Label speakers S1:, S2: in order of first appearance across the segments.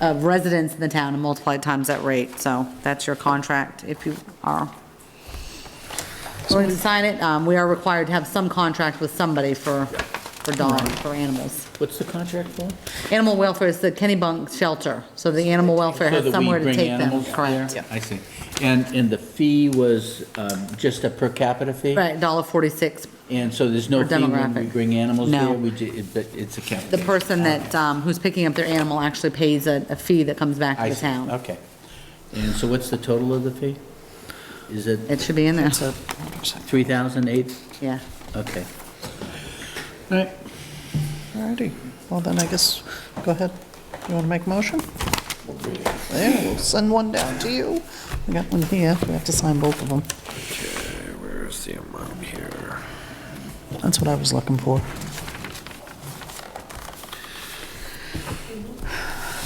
S1: of residents in the town and multiply it times that rate. So that's your contract if you are willing to sign it. Um, We are required to have some contract with somebody for, for dogs, for animals.
S2: What's the contract for?
S1: Animal welfare is the Kennybunk shelter, so the animal welfare
S2: So
S1: has
S2: that we
S1: somewhere to
S2: bring
S1: take them.
S2: animals there?
S1: Correct.
S2: I see. And, and the fee was um, just a per capita fee?
S1: Right, dollar forty-six.
S2: And so there's no
S1: Or
S2: fee when we
S1: demographic.
S2: bring animals there?
S1: No.
S2: We ju- it- But it's a capita.
S1: The person that, um, who's picking up their animal actually pays a, a fee that comes back
S2: I
S1: to the
S2: see.
S1: town.
S2: Okay. And so what's the total of the fee? Is it
S1: It should be in there,
S2: 3,008?
S1: yeah.
S2: Okay.
S3: Alrighty, well then I guess, go ahead. You want to make a motion? There, we'll send one down to you. We got one here, we have to sign both of them.
S4: Where's the amount here?
S3: That's what I was looking for.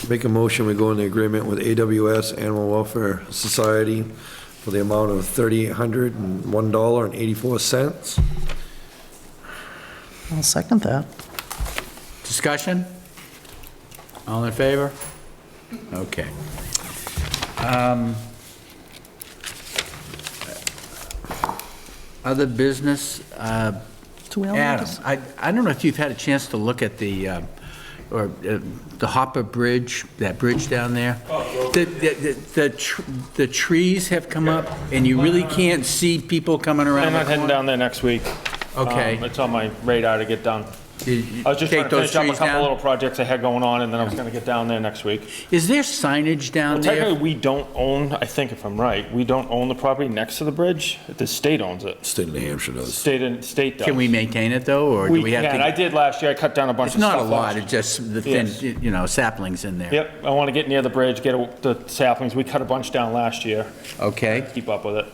S4: Make a motion, we go into agreement with AWS Animal Welfare Society for the amount of $3,801.84.
S3: I'll second that.
S2: Discussion? All in favor? Okay. Um, Other business, uh,
S3: Do we all need to
S2: Adam,
S3: s-
S2: I I don't know if you've had a chance to look at the, um, or uh, the Hopper Bridge, that bridge down there?
S5: Oh,
S2: The- The the- the tr- the trees have come up, and you really can't see people coming around
S5: I'm
S2: the
S5: not heading
S2: corner?
S5: down there next week.
S2: Okay.
S5: Um, It's on my radar to get done.
S2: Did you
S5: I was just
S2: take
S5: trying to finish
S2: those
S5: up a
S2: trees
S5: couple
S2: down?
S5: little projects I had going on, and then I was gonna get down there next week.
S2: Is there signage down
S5: Well,
S2: there?
S5: technically, we don't own, I think if I'm right, we don't own the property next to the bridge. The state owns it.
S4: State of New Hampshire does.
S5: State, and state does.
S2: Can we maintain it, though, or do
S5: We
S2: we have
S5: can. I
S2: to?
S5: did last year. I cut down a bunch
S2: It's
S5: of stuff.
S2: not a lot,
S5: last-
S2: it's just the thin,
S5: Yes.
S2: you know, saplings in there.
S5: Yep, I wanna get near the bridge, get a- the saplings. We cut a bunch down last year.
S2: Okay,
S5: Keep up with it.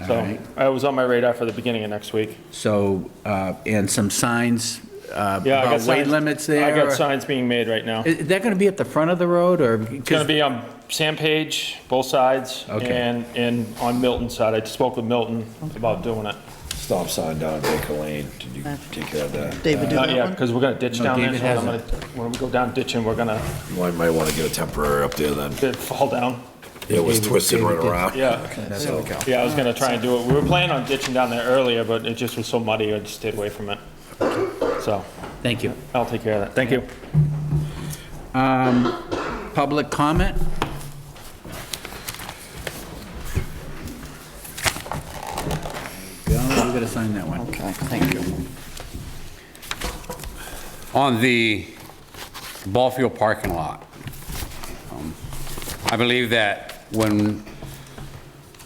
S2: All
S5: So
S2: right.
S5: I was on my radar for the beginning of next week.
S2: so, uh, and some signs uh,
S5: Yeah, I got
S2: about weight
S5: signs-
S2: limits there?
S5: I got
S2: or-
S5: signs being made right now.
S2: Is that going to be at the front of the road, or?
S5: It's gonna be on Sam Page, both sides,
S2: Okay.
S5: and, and on Milton's side. I spoke with Milton about doing it.
S4: Stop sign down Baker Lane. Did you take care of that?
S3: David, do
S5: Not
S3: that
S5: yet,
S3: one?
S5: because Uh, we're gonna ditch
S2: No,
S5: down there,
S2: David
S5: so I'm gonna, when we go down ditching, we're gonna
S4: You might want to get a temporary up there then.
S5: it fall down.
S4: It was twisted right around.
S5: Yeah,
S4: So-
S5: yeah, I was gonna try and do it. We were planning on ditching down there earlier, but it just was so muddy, I just stayed away from it. So,
S2: Thank you.
S5: I'll take care of that. Thank you.
S2: Public comment? There you Go, we got to sign that one.
S3: Okay, thank you.
S6: on the ball field parking lot. Um, I believe that when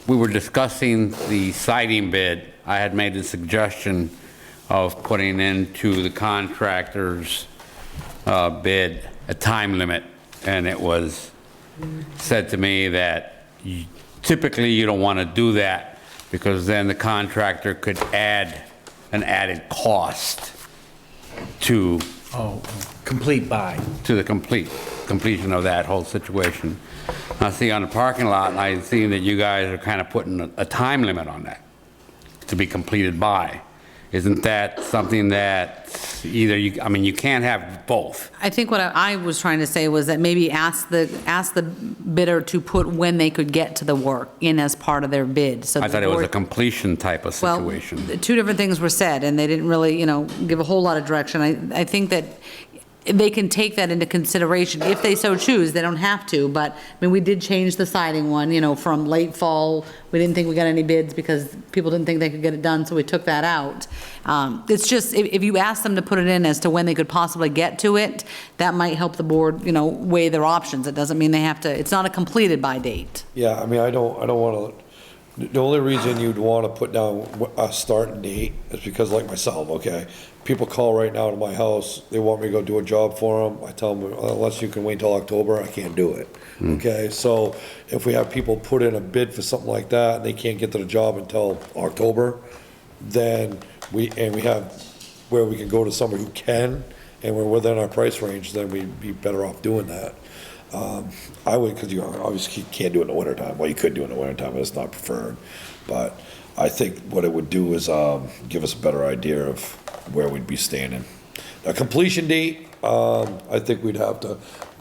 S6: we were discussing the siding bid, I had made the suggestion of putting into the contractor's uh, bid a time limit, and it was said to me that you- typically you don't want to do that because then the contractor could add an added cost to
S2: Oh, complete buy.
S6: to the complete, completion of that whole situation. I see on the parking lot, and I see that you guys are kind of putting a- a time limit on that to be completed by. Isn't that something that either you, I mean, you can't have both.
S1: I think what I I was trying to say was that maybe ask the, ask the bidder to put when they could get to the work in as part of their bid, so.
S6: I
S1: the
S6: thought it was a
S1: board-
S6: completion type of situation.
S1: Well, two different things were said, and they didn't really, you know, give a whole lot of direction. I, I think that they can take that into consideration if they so choose. They don't have to, but, I mean, we did change the siding one, you know, from late fall. We didn't think we got any bids because people didn't think they could get it done, so we took that out. Um, It's just, if, if you ask them to put it in as to when they could possibly get to it, that might help the board, you know, weigh their options. It doesn't mean they have to, it's not a completed by date.
S4: Yeah, I mean, I don't, I don't want to, the only reason you'd want to put down wh- a starting date is because like myself, okay? People call right now to my house, they want me to go do a job for them, I tell them, unless you can wait till October, I can't do it. Okay, so if we have people put in a bid for something like that, and they can't get to the job until October, then we, and we have, where we can go to somebody who can, and we're within our price range, then we'd be better off doing that. Um, I would, because you obviously can't do it in the wintertime. Well, you could do it in the wintertime, but it's not preferred. But I think what it would do is um, give us a better idea of where we'd be standing. A completion date, um, I think we'd have to,